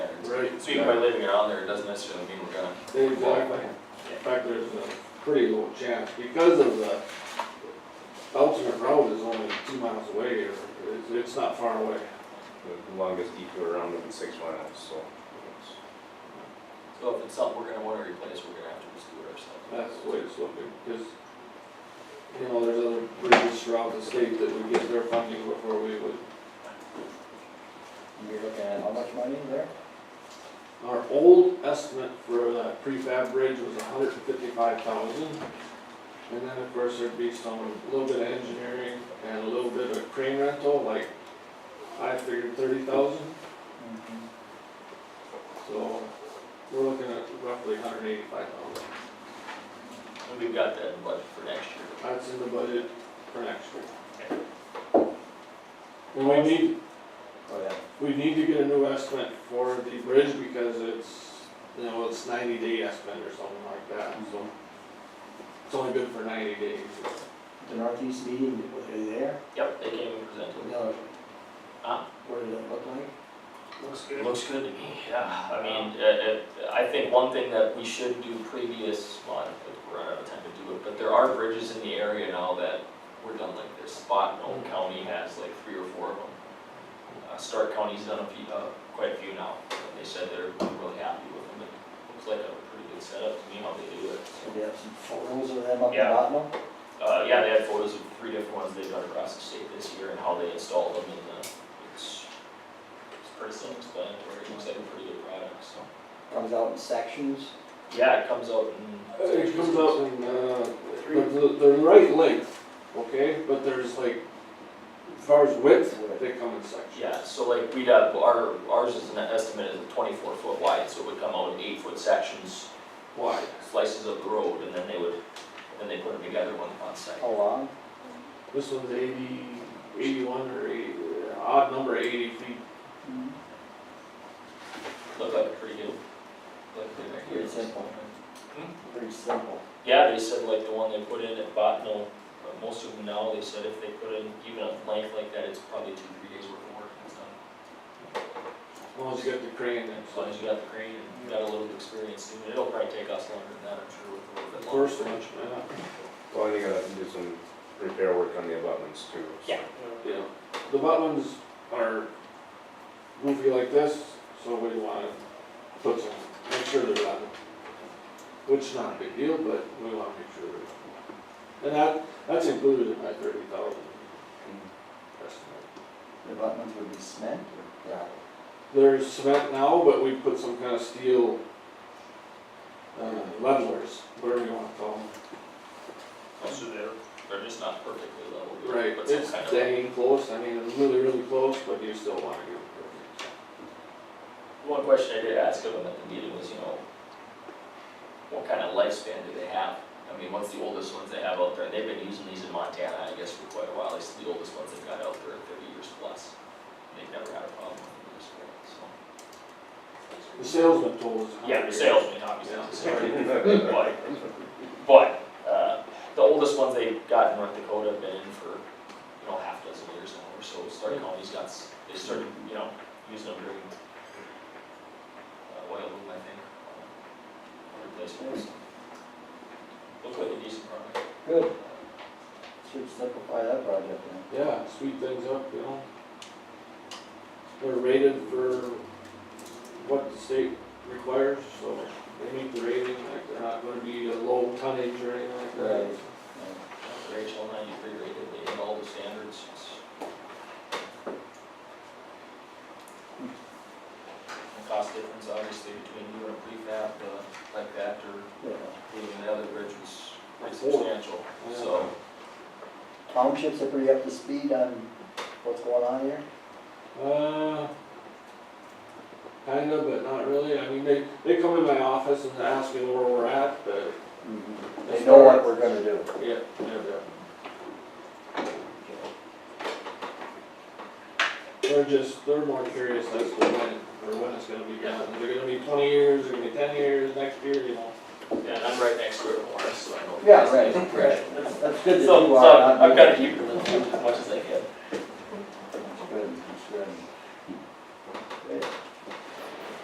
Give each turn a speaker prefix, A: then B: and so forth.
A: right.
B: So even by leaving it on there, it doesn't necessarily mean we're gonna.
A: Exactly. In fact, there's a pretty low chance because of the alternate road is only two miles away or it's, it's not far away.
C: The longest detour around would be six miles, so. it's-
B: So if it's something we're gonna wanna replace, we're gonna have to just do it ourselves.
A: That's the way it's looking, because, you know, there's other bridges throughout the state that would get their funding before we would.
D: You're looking at how much money there?
A: Our old estimate for that prefab bridge was hundred and fifty-five thousand. And then, of course, there'd be some, a little bit of engineering and a little bit of crane rental, like, I figured thirty thousand. So, we're looking at roughly hundred and eighty-five thousand.
B: And we've got that in budget for next year.
A: That's in the budget for next year. And we need,
D: Oh, yeah.
A: we need to get a new estimate for the bridge because it's, you know, it's ninety day estimate or something like that, so. It's only good for ninety days.
D: The northeast meeting, was it there?
B: Yep, they came and presented.
D: No.
B: Huh?
D: What did it look like?
E: Looks
B: It
E: good.
B: Looks good to me, yeah. I mean, uh, uh, I think one thing that we should do previous, well, I don't think we're out of time to do it, but there are bridges in the area now that were done like this. Spot in Old County has like three or four of them. Uh, Stark County's done a few, uh, quite a few now. And They said they're really happy with them. It looks like a pretty good setup to me how they do it.
D: Did they have some photos of them up in
B: Yeah.
D: Bottom?
B: Uh, yeah, they had photos of three different ones they've done across the state this year and how they installed them and, uh, it's, it's pretty self-explanatory. It looks like a pretty good product, so.
D: Comes out in sections.
B: Yeah, it comes out in.
A: It comes out in, uh, but the, they're right length, okay, but there's like, as far as width, they come in sections.
B: Yeah, so like we'd have, our, ours is an estimate is twenty-four foot wide, so it would come out in eight foot sections,
A: Wide.
B: slices of the road, and then they would, then they put them together one on site.
D: How long?
A: This one's eighty, eighty-one or eighty, odd number eighty feet.
B: Looked like a pretty good, like a good idea.
D: Pretty simple. Pretty simple.
B: Yeah, they said like the one they put in at Botno, uh, most of them now, they said if they put in even a length like that, it's probably two, three days worth of work. It's done.
A: As long as you got the crane
B: As
A: and such.
B: long as you got the crane and you got a little bit of experience, doing it. it'll probably take us longer than that, I'm sure, with a little bit
A: Of
B: longer.
A: course, much,
C: Well, I think I'll have to do some repair work on the abutments too. so.
B: Yeah.
A: yeah. The buttons are goofy like this, so we wanna put some, make sure they're on. Which is not a big deal, but we wanna make sure they're. And that, that's included in my thirty thousand estimate.
D: The buttons would be cement or gravel?
A: There's cement now, but we put some kind of steel, uh, levelers, whatever you wanna call them.
B: Most of them, they're just not perfectly level.
A: Right,
B: But some
A: it's
B: kind of.
A: dang close, I mean, it's really, really close, but you still wanna get it perfect.
B: One question I did ask of them at the meeting was, you know, what kind of lifespan do they have? I mean, what's the oldest ones they have out there? And they've been using these in Montana, I guess, for quite a while. These are the oldest ones they've got out there are thirty years plus. They've never had a problem with them this way, so.
A: The salesman told us.
B: Yeah, the salesman, obviously,
A: Yeah.
B: the salesman. But, but, uh, the oldest ones they've got in North Dakota have been in for, you know, half dozen years now or so. Started calling these guys, they started, you know, using them during, uh, oil boom, I think. uh, Replacements. Looks like a decent product.
D: Good. Should simplify that project then.
A: Yeah, speed things up, you know. They're rated for what the state requires, so they meet the rating, like they're not gonna be a low tonnage or anything like that.
D: Right.
B: Rachel ninety-three rated, they hit all the standards. The cost difference obviously between you and a prefab, uh, like that or
D: Yeah.
B: leaving the other bridge was pretty
A: Four.
B: substantial, so.
D: Townships are pretty up to speed on what's going on here?
A: Uh, kinda, but not really, I mean, they, they come in my office and ask me where we're at, but,
D: They know what we're gonna do.
A: yeah, yeah. They're just, they're more curious as to when, or when it's gonna be done, is it gonna be twenty years, or gonna be ten years, next year, you know?
B: Yeah, and I'm right next to it, Morris, so I know.
D: Yeah, right, right. That's, that's good that
B: So,
D: you
B: so
D: are. not
B: I've got to
D: me.
B: keep it as much as I can.